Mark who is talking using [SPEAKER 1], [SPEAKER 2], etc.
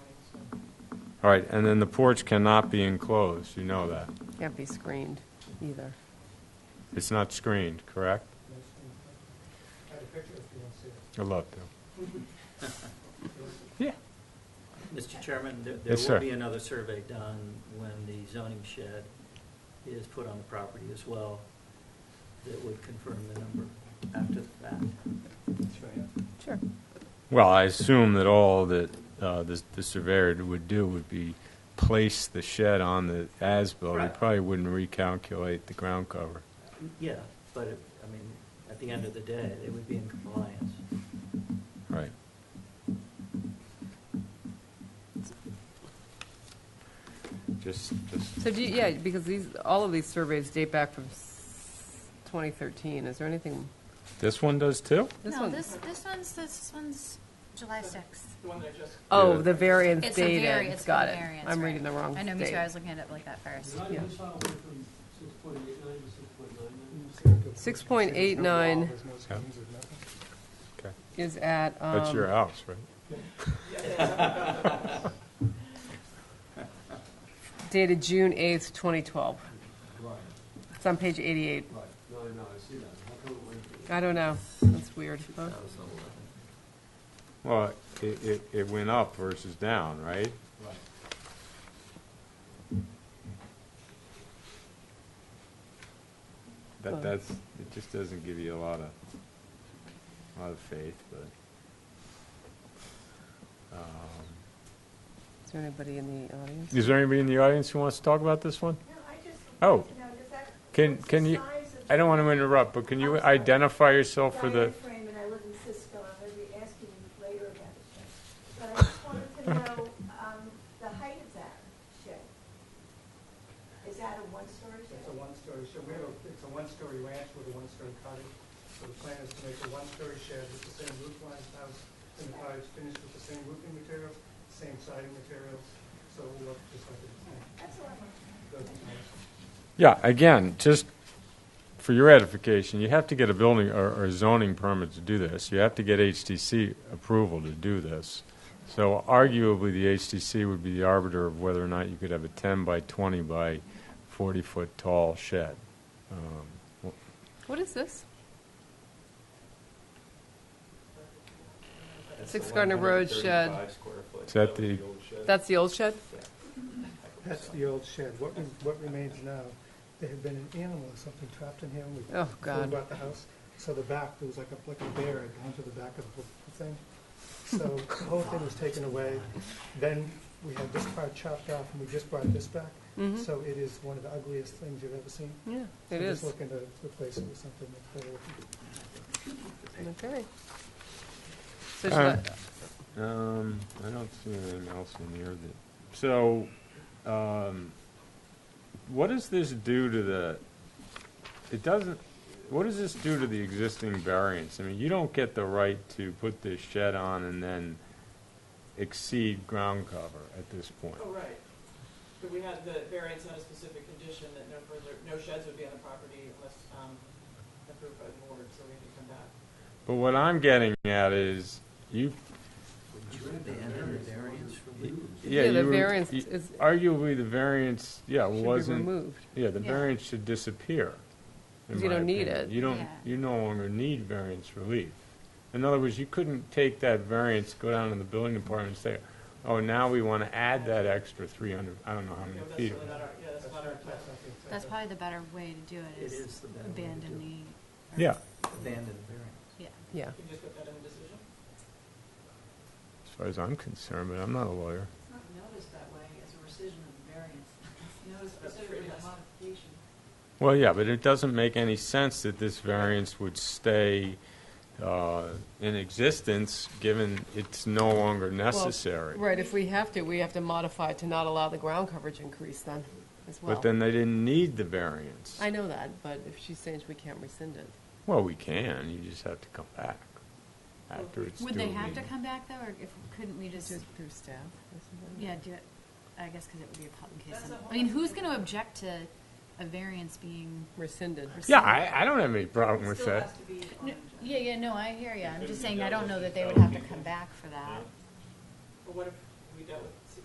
[SPEAKER 1] All right, and then the porch cannot be enclosed, you know that.
[SPEAKER 2] Can't be screened either.
[SPEAKER 1] It's not screened, correct?
[SPEAKER 3] I have a picture if you want to see it.
[SPEAKER 1] I'd love to. Yeah.
[SPEAKER 4] Mr. Chairman, there- there
[SPEAKER 1] Yes, sir.
[SPEAKER 4] will be another survey done when the zoning shed is put on the property as well that would confirm the number after the fact.
[SPEAKER 2] Sure.
[SPEAKER 1] Well, I assume that all that uh, the the surveyor would do would be place the shed on the as-built. He
[SPEAKER 4] Right.
[SPEAKER 1] probably wouldn't recalculate the ground cover.
[SPEAKER 4] Yeah, but, it- I mean, at the end of the day, they would be in compliance.
[SPEAKER 1] Right. Just, just,
[SPEAKER 2] So do you, yeah, because these, all of these surveys date back from s- 2013. Is there anything,
[SPEAKER 1] this one does too?
[SPEAKER 2] this
[SPEAKER 5] No,
[SPEAKER 2] one?
[SPEAKER 5] this, this one's, this one's July sixth.
[SPEAKER 3] The one that I just,
[SPEAKER 2] Oh,
[SPEAKER 1] Yeah.
[SPEAKER 2] the variance
[SPEAKER 5] It's a
[SPEAKER 2] dated.
[SPEAKER 5] vari, it's
[SPEAKER 2] Got
[SPEAKER 5] a
[SPEAKER 2] it.
[SPEAKER 5] variance,
[SPEAKER 2] I'm
[SPEAKER 5] right.
[SPEAKER 2] reading the wrong
[SPEAKER 5] I know, me too,
[SPEAKER 2] date.
[SPEAKER 5] I was looking at it like that first.
[SPEAKER 3] how
[SPEAKER 2] Yeah.
[SPEAKER 3] did this file go from six point eight nine to six point nine
[SPEAKER 2] 6.89
[SPEAKER 3] nine?
[SPEAKER 1] Okay.
[SPEAKER 2] is at, um...
[SPEAKER 1] That's your house, right?
[SPEAKER 2] Dated June 8th, 2012.
[SPEAKER 3] Right,
[SPEAKER 2] It's on page 88.
[SPEAKER 3] right. No, no, I see that. How come it went from
[SPEAKER 2] I don't know. That's weird. huh?
[SPEAKER 1] Well, it, it, it went up versus down, right?
[SPEAKER 3] Right.
[SPEAKER 1] That,
[SPEAKER 2] Well-
[SPEAKER 1] that's, it just doesn't give you a lot of, a lot of faith, but. um,
[SPEAKER 2] Is there anybody in the audience?
[SPEAKER 1] Is there anybody in the audience who wants to talk about this one?
[SPEAKER 6] No, I just
[SPEAKER 1] Oh.
[SPEAKER 6] wanted to know, does that-
[SPEAKER 1] Can,
[SPEAKER 6] what's the
[SPEAKER 1] can you,
[SPEAKER 6] size of
[SPEAKER 1] I don't want to interrupt, but can you
[SPEAKER 6] I'm sorry.
[SPEAKER 1] identify yourself for
[SPEAKER 6] Diane
[SPEAKER 1] the,
[SPEAKER 6] Frame, and I live in Cisco, I'm going to be asking you later about the shed. But I just wanted to know um, the height of that shed. Is that a one-story
[SPEAKER 3] It's a
[SPEAKER 6] shed?
[SPEAKER 3] one-story, so we have, a- it's a one-story ranch with a one-story cottage. So the plan is to make a one-story shed with the same roof line as house, and the cottage finished with the same roofing materials, same siding materials, so it will look just like it's
[SPEAKER 6] That's all I wanted.
[SPEAKER 3] good.
[SPEAKER 1] yeah, again, just for your edification, you have to get a building or or zoning permit to do this. You have to get HTC approval to do this. So arguably, the HTC would be the arbiter of whether or not you could have a 10 by 20 by 40-foot tall shed. Um, well,
[SPEAKER 2] What is this?
[SPEAKER 4] That's
[SPEAKER 2] Six
[SPEAKER 4] the
[SPEAKER 2] Gardner Road shed.
[SPEAKER 4] 135 square foot.
[SPEAKER 1] Is that
[SPEAKER 4] was
[SPEAKER 1] the-
[SPEAKER 4] old shed.
[SPEAKER 2] That's the old shed?
[SPEAKER 3] That's the old shed. What, re- what remains now, there had been an animal or something trapped in here. and we
[SPEAKER 2] Oh,
[SPEAKER 3] pulled
[SPEAKER 2] God.
[SPEAKER 3] out the house. So the back, there was like a, like a bear had gone to the back of the whole thing. So the whole thing was taken away. Then we had this part chopped off and we just brought this back.
[SPEAKER 2] Mhm.
[SPEAKER 3] So it is one of the ugliest things you've ever seen.
[SPEAKER 2] Yeah,
[SPEAKER 3] So
[SPEAKER 2] it is.
[SPEAKER 3] just looking to replace it with something that's better.
[SPEAKER 2] Okay. So should
[SPEAKER 1] Uh,
[SPEAKER 2] I-
[SPEAKER 1] Um, I don't see anything else in here that, so, um, what does this do to the, it doesn't, what does this do to the existing variance? I mean, you don't get the right to put this shed on and then exceed ground cover at this point.
[SPEAKER 7] Oh, right. But we had the variance on a specific condition that no further, no sheds would be on the property unless um, approved by the board, so we had to come back.
[SPEAKER 1] But what I'm getting at is, you,
[SPEAKER 4] Would you abandon the variance relief?
[SPEAKER 1] yeah,
[SPEAKER 2] Yeah, the
[SPEAKER 1] you were-
[SPEAKER 2] variance
[SPEAKER 1] you-
[SPEAKER 2] is-
[SPEAKER 1] Arguably, the variance, yeah,
[SPEAKER 2] should be
[SPEAKER 1] wasn't.
[SPEAKER 2] removed.
[SPEAKER 1] Yeah, the
[SPEAKER 5] Yeah.
[SPEAKER 1] variance should disappear. in
[SPEAKER 2] 'Cause you
[SPEAKER 1] my
[SPEAKER 2] don't need
[SPEAKER 1] opinion.
[SPEAKER 2] it.
[SPEAKER 1] You don't,
[SPEAKER 5] Yeah.
[SPEAKER 1] you no longer need variance relief. In other words, you couldn't take that variance, go down to the building department and say, oh, now we want to add that extra 300, I don't know how
[SPEAKER 7] You
[SPEAKER 1] many
[SPEAKER 7] know, that's
[SPEAKER 1] feet.
[SPEAKER 7] really not our, yeah, that's not our intent.
[SPEAKER 5] That's probably the better way to do
[SPEAKER 4] It
[SPEAKER 5] it,
[SPEAKER 4] is
[SPEAKER 5] is
[SPEAKER 4] the better way to do
[SPEAKER 5] abandon
[SPEAKER 4] it.
[SPEAKER 5] the. or-
[SPEAKER 1] Yeah,
[SPEAKER 4] Abandon the variance.
[SPEAKER 5] Yeah.
[SPEAKER 2] Yeah.
[SPEAKER 7] You can just put that in the decision.
[SPEAKER 1] as far as I'm concerned, but I'm not a lawyer.
[SPEAKER 8] It's not noticed that way as a rescission of the variance. It's noticed
[SPEAKER 7] That's
[SPEAKER 8] specifically
[SPEAKER 7] pretty
[SPEAKER 8] as
[SPEAKER 7] nice.
[SPEAKER 8] a modification.
[SPEAKER 1] Well, yeah, but it doesn't make any sense that this variance would stay uh, in existence, given it's no longer necessary.
[SPEAKER 2] Right, if we have to, we have to modify to not allow the ground coverage increase then, as well.
[SPEAKER 1] But then they didn't need the variance.
[SPEAKER 2] I know that, but if she's saying we can't rescind it.
[SPEAKER 1] Well, we can, you just have to come back after it's due.
[SPEAKER 5] Would they have to
[SPEAKER 1] meeting.
[SPEAKER 5] come back though, or if, couldn't we just,
[SPEAKER 2] Do it through staff? or something?
[SPEAKER 5] yeah, do it, I guess, because it would be a public case.
[SPEAKER 7] That's
[SPEAKER 5] some-
[SPEAKER 7] a whole
[SPEAKER 5] I mean, who's
[SPEAKER 7] other-
[SPEAKER 5] going to object to a variance being?
[SPEAKER 2] Rescinded.
[SPEAKER 1] Yeah, I, I don't have any problem
[SPEAKER 7] It
[SPEAKER 1] with
[SPEAKER 7] still has
[SPEAKER 1] that.
[SPEAKER 7] to be on
[SPEAKER 5] No,
[SPEAKER 7] an agenda.
[SPEAKER 5] Yeah, yeah, no, I hear you, I'm just saying, I don't know that they would have to come back for that.
[SPEAKER 7] But what if we dealt with